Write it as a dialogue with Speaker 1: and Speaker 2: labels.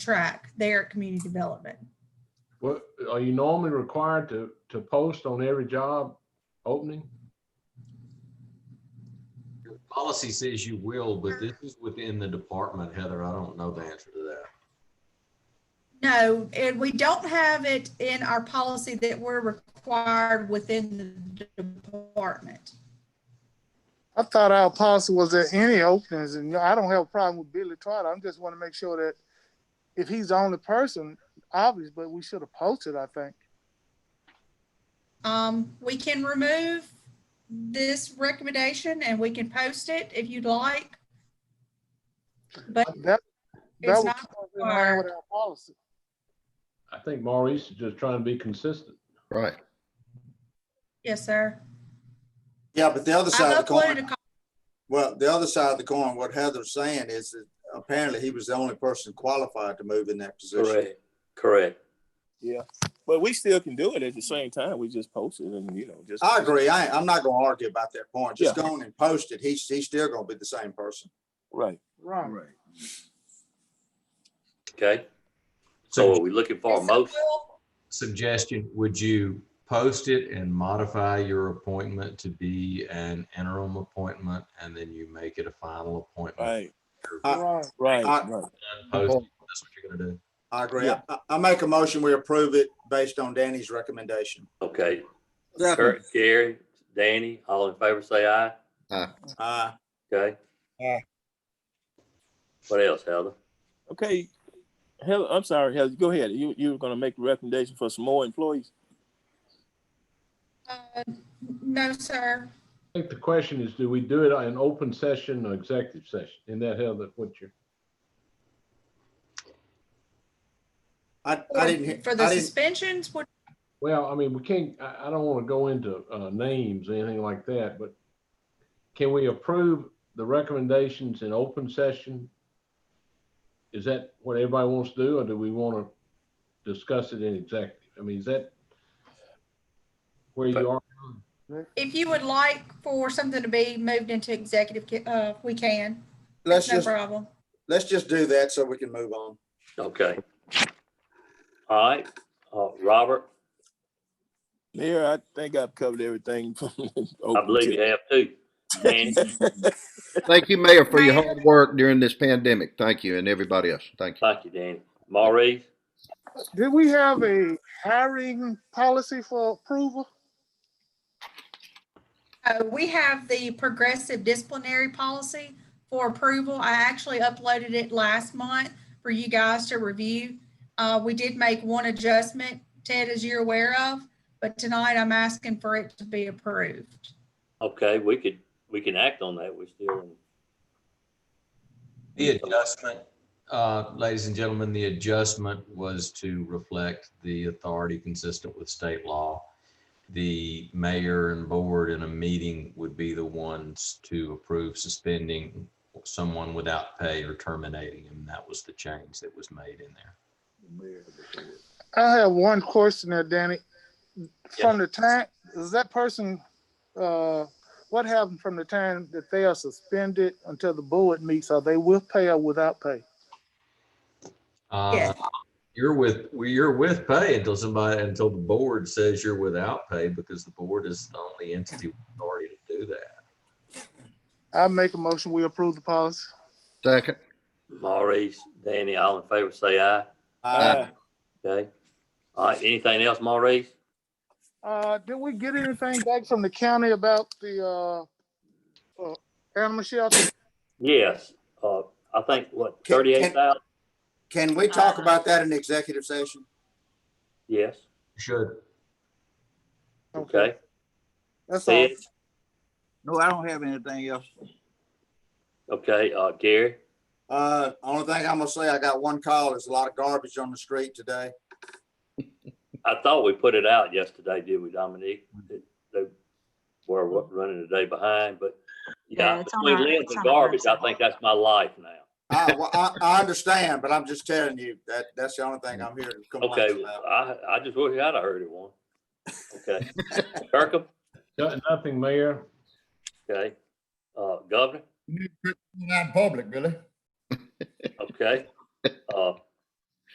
Speaker 1: track there at community development.
Speaker 2: What, are you normally required to, to post on every job opening?
Speaker 3: Your Policy says you will, but this is within the department, Heather. I don't know the answer to that.
Speaker 1: No, and we don't have it in our policy that we're required within the department.
Speaker 4: I thought our policy was that any openings, and I don't have a problem with Billy Trotter. I'm just want to make sure that if he's the only person, obvious, but we should have posted, I think.
Speaker 1: Um, we can remove this recommendation and we can post it if you'd like. But
Speaker 4: That, that
Speaker 1: it's
Speaker 4: was
Speaker 1: not
Speaker 4: totally in line with our policy.
Speaker 2: I think Maurice is just trying to be consistent.
Speaker 5: Right.
Speaker 1: Yes, sir.
Speaker 6: Yeah, but the other side
Speaker 1: I've
Speaker 6: of the
Speaker 1: uploaded a
Speaker 6: coin,
Speaker 1: copy.
Speaker 6: well, the other side of the coin, what Heather's saying is that apparently he was the only person qualified to move in that position.
Speaker 7: Correct, correct.
Speaker 8: Yeah, but we still can do it at the same time. We just post it and, you know, just.
Speaker 6: I agree. I, I'm not gonna argue about that point. Just
Speaker 8: Yeah.
Speaker 6: go on and post it. He's, he's still gonna be the same person.
Speaker 8: Right.
Speaker 4: Right.
Speaker 7: Okay. So are we looking for a
Speaker 1: So
Speaker 7: motion?
Speaker 1: we'll-
Speaker 3: Suggestion, would you post it and modify your appointment to be an interim appointment? And then you make it a final appointment?
Speaker 8: Right,
Speaker 4: Right.
Speaker 8: right,
Speaker 6: I-
Speaker 8: right.
Speaker 3: Post it. That's what you're gonna do.
Speaker 6: I agree.
Speaker 8: Yeah.
Speaker 6: I, I make a motion, we approve it based on Danny's recommendation.
Speaker 7: Okay. Kurt, Gary, Danny, all in favor, say aye.
Speaker 6: Uh,
Speaker 7: Okay.
Speaker 4: Aye.
Speaker 7: What else, Heather?
Speaker 8: Okay. Hell, I'm sorry, Heather, go ahead. You, you were gonna make a recommendation for some more employees?
Speaker 1: uh, No, sir.
Speaker 2: I think the question is, do we do it in open session or executive session? Isn't that how that what you're,
Speaker 6: I, I didn't, hear-
Speaker 1: For the
Speaker 6: I didn't,
Speaker 1: suspensions, what,
Speaker 2: well, I mean, we can't, I, I don't want to go into, uh, names, or anything like that, but can we approve the recommendations in open session? Is that what everybody wants to do, or do we want to discuss it in executive? I mean, is that where you are?
Speaker 1: if you would like for something to be moved into executive, ca- uh, we can.
Speaker 6: let's
Speaker 1: No
Speaker 6: just,
Speaker 1: problem.
Speaker 6: let's just do that so we can move on.
Speaker 7: Okay. All right, uh, Robert,
Speaker 8: Mayor, I think I've covered everything. from
Speaker 7: I
Speaker 8: open
Speaker 7: believe
Speaker 8: to-
Speaker 7: you have too. Danny,
Speaker 5: Thank you, Mayor, for your
Speaker 1: Mayor.
Speaker 5: hard work during this pandemic. Thank you, and everybody else. Thank you.
Speaker 7: thank you, Danny. Maurice,
Speaker 4: Did we have a hiring policy for approval?
Speaker 1: Uh, we have the progressive disciplinary policy for approval. I actually uploaded it last month for you guys to review. Uh, we did make one adjustment, Ted, as you're aware of, but tonight I'm asking for it to be approved.
Speaker 7: okay, we could, we can act on that. We're still in.
Speaker 3: The adjustment, uh, ladies and gentlemen, the adjustment was to reflect the authority consistent with state law. The mayor and board in a meeting would be the ones to approve suspending someone without pay or terminating him. That was the change that was made in there.
Speaker 4: I have one question there, Danny. From the time, is that person, uh, what happened from the time that they are suspended until the board meets? Are they with pay or without pay?
Speaker 3: Uh,
Speaker 1: Yeah.
Speaker 3: You're with, well, you're with pay until somebody, until the board says you're without pay because the board is the only entity with authority to do that.
Speaker 4: I make a motion, we approve the policy.
Speaker 5: Second.
Speaker 7: Maurice, Danny, all in favor, say aye.
Speaker 6: Uh,
Speaker 7: Okay. All right, anything else, Maurice?
Speaker 4: Uh, did we get anything back from the county about the, uh, uh, animal shelter?
Speaker 7: Yes, uh, I think
Speaker 6: Can-
Speaker 7: what,
Speaker 6: can-
Speaker 7: thirty-eight thousand?
Speaker 6: Can we talk about that in executive session?
Speaker 7: Yes,
Speaker 3: Should.
Speaker 7: okay.
Speaker 4: That's all.
Speaker 7: Ted,
Speaker 9: No, I don't have anything else.
Speaker 7: okay, uh, Gary,
Speaker 6: Uh, only thing I'm gonna say, I got one call. There's a lot of garbage on the street today.
Speaker 7: I thought we put it out yesterday, did we, Dominique? That They were wa- running a day behind, but
Speaker 10: Yeah,
Speaker 7: yeah,
Speaker 10: it's on
Speaker 7: between
Speaker 10: our-
Speaker 7: limbs
Speaker 10: it's
Speaker 7: and
Speaker 10: on our
Speaker 7: garbage, I think that's my life now.
Speaker 6: I, well, I, I understand, but I'm just telling you that that's the only thing I'm here to complain
Speaker 7: Okay,
Speaker 6: about.
Speaker 7: I, I just wish I'd have heard it one. Okay, Kirkham,
Speaker 2: No- Nothing, Mayor.
Speaker 7: okay, uh, Governor,
Speaker 9: Not public, really.
Speaker 7: okay, uh,